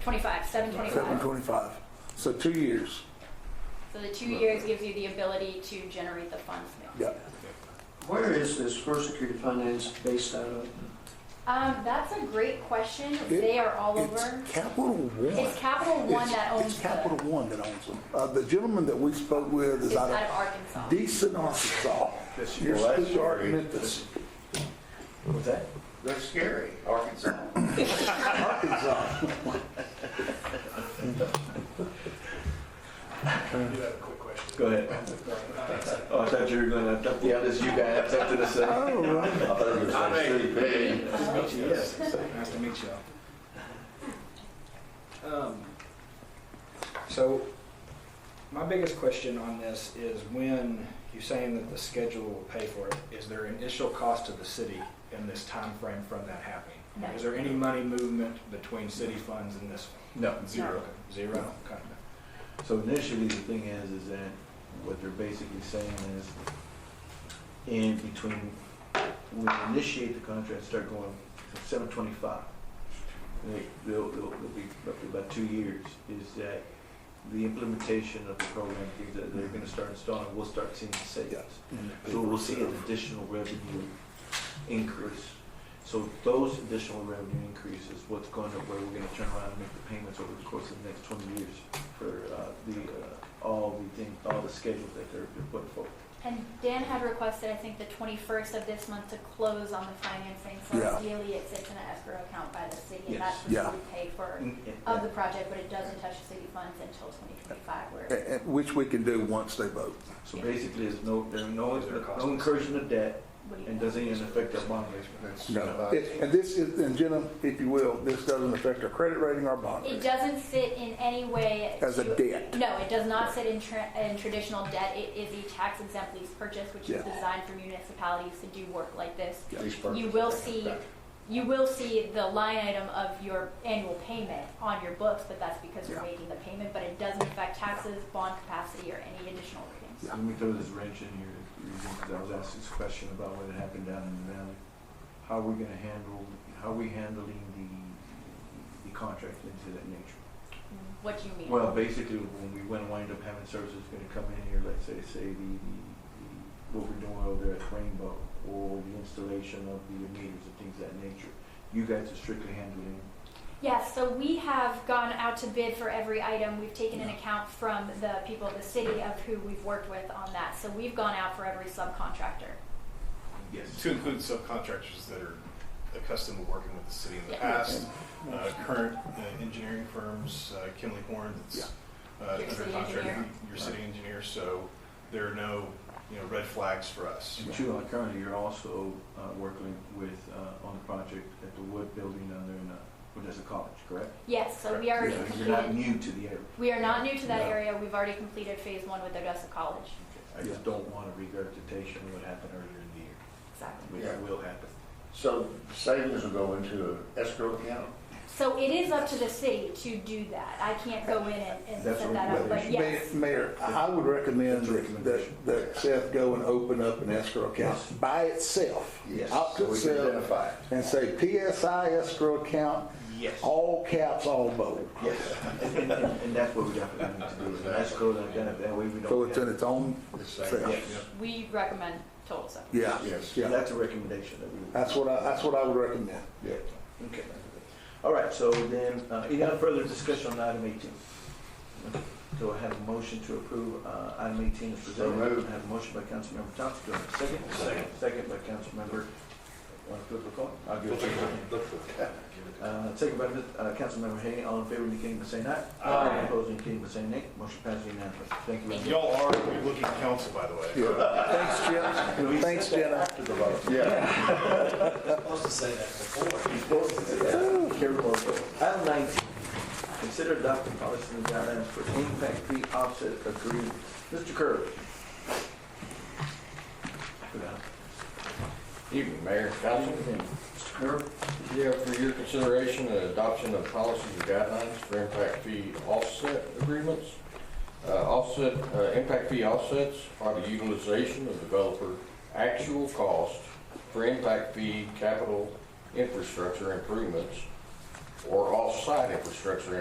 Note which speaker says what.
Speaker 1: 25, 725.
Speaker 2: 725. So two years.
Speaker 1: So the two years gives you the ability to generate the funds.
Speaker 2: Yeah.
Speaker 3: Where is this First Security Finance based out of?
Speaker 1: Um, that's a great question.
Speaker 2: It-
Speaker 1: They are all
Speaker 2: It's
Speaker 1: over.
Speaker 2: Capital One.
Speaker 1: It's Capital One
Speaker 2: It's-
Speaker 1: that owns
Speaker 2: It's
Speaker 1: the-
Speaker 2: Capital One that owns them. Uh, the gentleman that we spoke with
Speaker 1: It's
Speaker 2: is out
Speaker 1: out
Speaker 2: of
Speaker 1: of Arkansas.
Speaker 2: Decent, Arkansas.
Speaker 4: That's
Speaker 2: You're
Speaker 4: well, that's
Speaker 2: still
Speaker 4: scary.
Speaker 2: Memphis,
Speaker 3: What's that?
Speaker 4: That's scary, Arkansas.
Speaker 2: Arkansas.
Speaker 5: do have a quick question.
Speaker 4: Go ahead. Oh, I thought you were gonna, I thought- yeah, this you guy had something to say. I
Speaker 2: Oh, right.
Speaker 4: thought you were
Speaker 5: I
Speaker 4: saying city pay.
Speaker 5: Yes. Nice to meet y'all. Um, So, my biggest question on this is when you're saying that the schedule will pay for it, is there initial cost to the city in this time frame from that happening?
Speaker 1: No.
Speaker 5: Is there any money movement between city funds and this one?
Speaker 4: No,
Speaker 1: zero.
Speaker 5: Zero, okay.
Speaker 4: So initially, the thing is, is that what they're basically saying is, in between, when we initiate the contract, start going to seven twenty-five. They'll, they'll, they'll be up to about two years, is that the implementation of the program, things that they're gonna start installing, we'll start seeing savings. So we'll see an additional revenue increase. So those additional revenue increases, what's going to, where we're gonna turn around and make the payments over the course of the next twenty years for uh, the, uh, all the thing, all the schedules that they're they're putting forward.
Speaker 1: And Dan had requested, I think, the 21st of this month to close on the financing. So
Speaker 2: Yeah.
Speaker 1: ideally, it sits in an escrow account by the city, and
Speaker 4: Yes. Mm.
Speaker 1: that's what
Speaker 2: Yeah.
Speaker 1: we pay for
Speaker 4: And- and-
Speaker 1: of the project, but it doesn't touch the city funds until 2025.
Speaker 2: A-
Speaker 1: Where
Speaker 2: and Which we can do once they vote.
Speaker 4: So basically, there's no, there's no,
Speaker 5: Is there a cost?
Speaker 4: no incursion of debt
Speaker 1: what do you
Speaker 4: and
Speaker 1: know?
Speaker 4: doesn't even affect our bond rating.
Speaker 2: No. It- And this is, and Jenna, if you will, this doesn't affect our credit rating or bond
Speaker 1: It
Speaker 2: rating.
Speaker 1: doesn't sit in any way.
Speaker 2: As a
Speaker 1: to-
Speaker 2: debt.
Speaker 1: No, it does not sit in, tra- in traditional debt. It is a tax exempt lease purchase, which is
Speaker 2: Yeah.
Speaker 1: designed for municipalities to do work like this.
Speaker 4: Yeah.
Speaker 1: You will see, you will see the line item of your annual payment on your books, but that's because you're
Speaker 2: Yeah.
Speaker 1: making the payment, but it doesn't affect taxes, bond capacity, or any additional ratings.
Speaker 4: Let me throw this wrench in here, because I was asked this question about what had happened down in the valley. How are we gonna handle, how are we handling the, the contract into that nature?
Speaker 1: What do you mean?
Speaker 4: Well, basically, when we went and wind up having services gonna come in here, let's say, say the, the, what we're doing over there at Rainbow, or the installation of the meters and things of that nature, you guys are strictly handling.
Speaker 1: Yes, so we have gone out to bid for every item. We've taken an account from the people of the city of who we've worked with on that. So we've gone out for every subcontractor.
Speaker 4: Yes.
Speaker 6: To include subcontractors that are accustomed to working with the city in the
Speaker 1: Yeah.
Speaker 6: past, uh, current uh, engineering firms, uh, Kimley Horn, that's uh,
Speaker 1: Your
Speaker 6: under
Speaker 1: city
Speaker 6: contract,
Speaker 1: engineer.
Speaker 6: your city engineer, so there are no, you know, red flags for us.
Speaker 4: And Two, uh, currently, you're also, uh, working with, uh, on the project at the Wood Building down there in, uh, well, that's a college, correct?
Speaker 1: Yes, so we already
Speaker 4: So You're not
Speaker 1: completed,
Speaker 4: new to the area.
Speaker 1: we are not new to that
Speaker 4: No.
Speaker 1: area. We've already completed phase one with Odessa College.
Speaker 4: I just don't want a regurgitation of what happened earlier in the year,
Speaker 1: Exactly.
Speaker 4: which
Speaker 7: Yeah.
Speaker 4: will happen.
Speaker 7: So savings will go into an escrow account?
Speaker 1: So it is up to the city to do that. I can't go in and and
Speaker 4: That's
Speaker 1: set
Speaker 4: what
Speaker 1: that up,
Speaker 4: we-
Speaker 1: but yes.
Speaker 2: Ma- Mayor, I I would recommend
Speaker 4: That's a
Speaker 2: that,
Speaker 4: recommendation.
Speaker 2: that Seth go and open up an escrow account
Speaker 4: Yes.
Speaker 2: by itself.
Speaker 4: Yes.
Speaker 2: Out to
Speaker 7: So we can
Speaker 2: itself
Speaker 7: identify it.
Speaker 2: and say PSI escrow account,
Speaker 4: Yes.
Speaker 2: all caps, all bold.
Speaker 4: Yes, and, and, and that's what we definitely need to do, is an escrow that kind of, that way we don't.
Speaker 2: So it's in
Speaker 4: have-
Speaker 2: its own
Speaker 7: It's like-
Speaker 2: self.
Speaker 4: Yes,
Speaker 1: We recommend total separation.
Speaker 2: Yeah,
Speaker 7: Yes.
Speaker 4: and
Speaker 2: yeah.
Speaker 4: that's a recommendation that we.
Speaker 2: That's what I, that's what I would recommend.
Speaker 4: Yeah, okay. All right, so then, uh, any other further discussion on item eighteen? Do I have a motion to approve, uh, item eighteen is
Speaker 7: So
Speaker 4: presented?
Speaker 7: moved.
Speaker 4: I have a motion by Councilmember Thompson, do I have a second? Second. Second by Councilmember, want to flip a coin? I'll give it to you. Uh, second by, uh, Councilmember Hay, all in favor indicating by saying aye. Aye. Opposed indicating by saying nay, motion passes unanimously, thank you. very much.
Speaker 6: Y'all are a good-looking council, by the way.
Speaker 2: Yeah. Thanks, Jim. Thanks, Jenna.
Speaker 7: Yeah.
Speaker 4: Item 19, consider adopting policy and guidelines for impact fee offset agreement. Mr. Curley.
Speaker 8: Evening, Mayor, Council. Mr. Kerr. Yeah, for your consideration, the adoption of policies and guidelines for impact fee offset agreements. Uh, Offset, uh, impact fee offsets are the utilization of developer actual cost for impact fee capital infrastructure improvements or off-site infrastructure